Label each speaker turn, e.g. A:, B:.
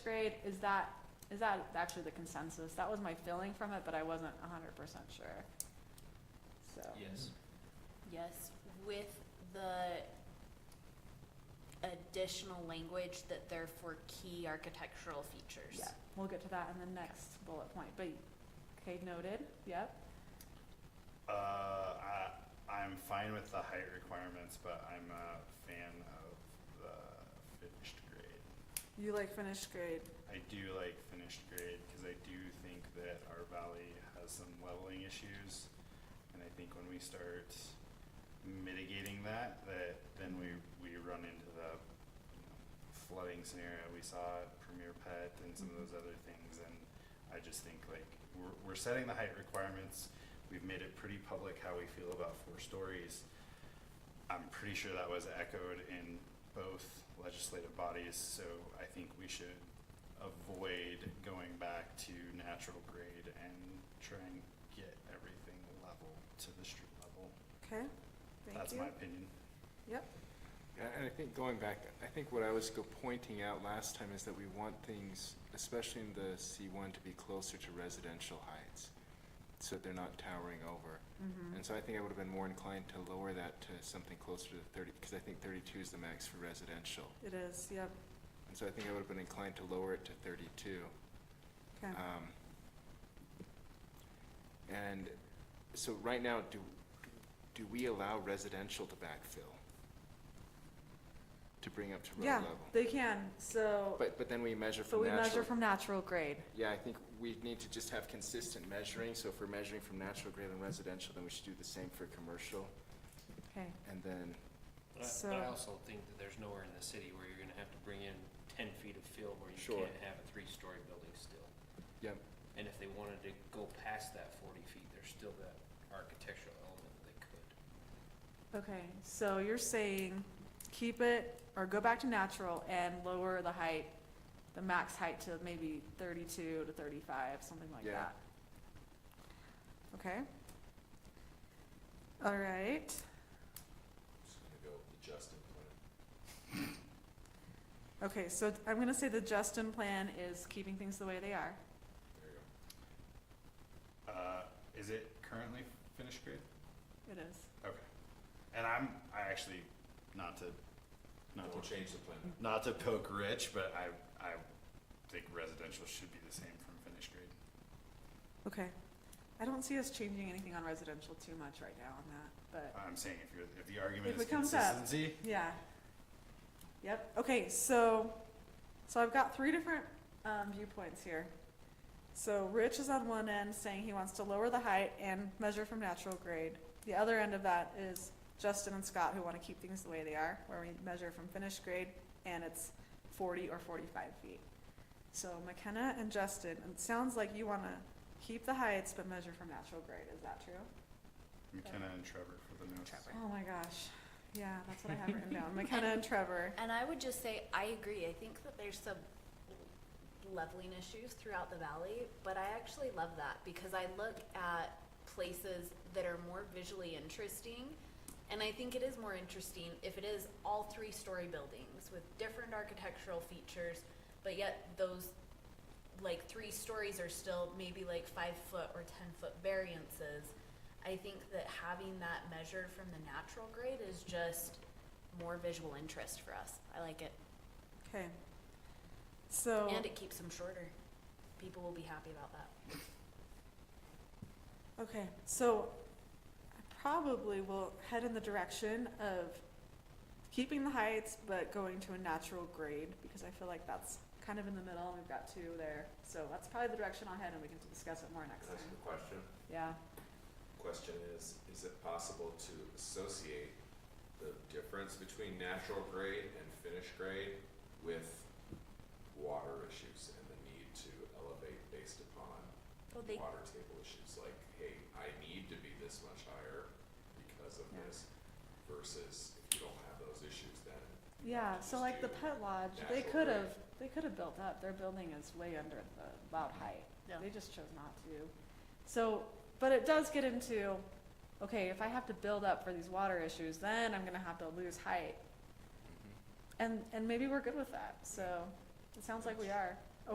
A: grade, is that, is that actually the consensus? That was my feeling from it, but I wasn't hundred percent sure. So,
B: Yes.
C: Yes, with the additional language that they're for key architectural features.
A: yeah, we'll get to that in the next bullet point, but, okay, noted, yep.
D: Uh, I, I'm fine with the height requirements, but I'm a fan of the finished grade.
A: You like finished grade,
D: I do like finished grade because I do think that our valley has some leveling issues. And I think when we start mitigating that, that then we, we run into the you know, flooding scenario we saw at Premier Pet and some of those other things. And I just think like, we're, we're setting the height requirements. We've made it pretty public how we feel about four stories. I'm pretty sure that was echoed in both legislative bodies, so I think we should avoid going back to natural grade and try and get everything level to the street level.
A: okay,
D: That's my opinion.
A: Yep,
E: Yeah, And I think going back, I think what I was go pointing out last time is that we want things, especially in the C one, to be closer to residential heights, so that they're not towering over.
A: Mm-hmm.
E: And so I think I would have been more inclined to lower that to something closer to thirty, because I think thirty-two is the max for residential.
A: it is, yep,
E: And so I think I would have been inclined to lower it to thirty-two.
A: okay.
E: Um, And so right now, do, do we allow residential to backfill? To bring up to road
A: Yeah,
E: level?
A: they can, so,
E: But, but then we measure
A: so
E: from
A: we measure
E: natural.
A: from natural grade,
E: Yeah, I think we need to just have consistent measuring, so if we're measuring from natural grade and residential, then we should do the same for commercial,
A: okay,
E: and then,
B: But I- but I
A: So-
B: also think that there's nowhere in the city where you're gonna have to bring in ten feet of fill where you
E: Sure.
B: can't have a three-story building still.
E: yep,
B: And if they wanted to go past that forty feet, there's still that architectural element that they could.
A: okay, so you're saying keep it, or go back to natural and lower the height, the max height to maybe thirty-two to thirty-five, something like
E: Yeah.
A: that. Okay. All right,
F: Just gonna go with the Justin plan.
A: okay, so I'm gonna say the Justin plan is keeping things the way they are.
F: There you go.
D: Uh, is it currently finished grade?
A: It is.
D: Okay. And I'm, I actually, not to, not
F: We'll
D: to,
F: change the plan.
D: not to poke Rich, but I, I think residential should be the same from finished grade.
A: Okay. I don't see us changing anything on residential too much right now on that,
D: I'm saying if you're, if the
A: If
D: argument is
A: it comes up.
D: consistency,
A: but, yeah. Yep, okay, so, so I've got three different, um, viewpoints here. So Rich is on one end saying he wants to lower the height and measure from natural grade. The other end of that is Justin and Scott who wanna keep things the way they are, where we measure from finished grade and it's forty or forty-five feet. So McKenna and Justin, it sounds like you wanna keep the heights but measure from natural grade, is that true?
D: McKenna and Trevor for the notes.
C: Trevor.
A: Oh my gosh. Yeah, that's what I have written down. McKenna and Trevor.
C: And I would just say, I agree, I think that there's some leveling issues throughout the valley, but I actually love that because I look at places that are more visually interesting. And I think it is more interesting if it is all three-story buildings with different architectural features, but yet those, like, three stories are still maybe like five-foot or ten-foot variances. I think that having that measured from the natural grade is just more visual interest for us. I like it.
A: Okay. So
C: And it keeps them shorter. People will be happy about that.
A: okay, so I probably will head in the direction of keeping the heights but going to a natural grade because I feel like that's kind of in the middle and we've got two there. So that's probably the direction I'll head and we can discuss it more next
F: Can I
A: time.
F: ask a question?
A: Yeah.
F: Question is, is it possible to associate the difference between natural grade and finished grade with water issues and the need to elevate based upon
C: Well, they,
F: water table issues? Like, hey, I need to be this much higher because of
A: Yeah.
F: this versus if you don't have those issues, then
A: Yeah, so
F: Just
A: like the
F: do
A: pet lodge,
F: natural
A: they could
F: grade.
A: have, they could have built up, their building is way under the allowed height.
C: Yeah.
A: They just chose not to. So, but it does get into, okay, if I have to build up for these water issues, then I'm gonna have to lose
D: Mm-hmm.
A: height. And, and maybe we're good with that, so it sounds like we are.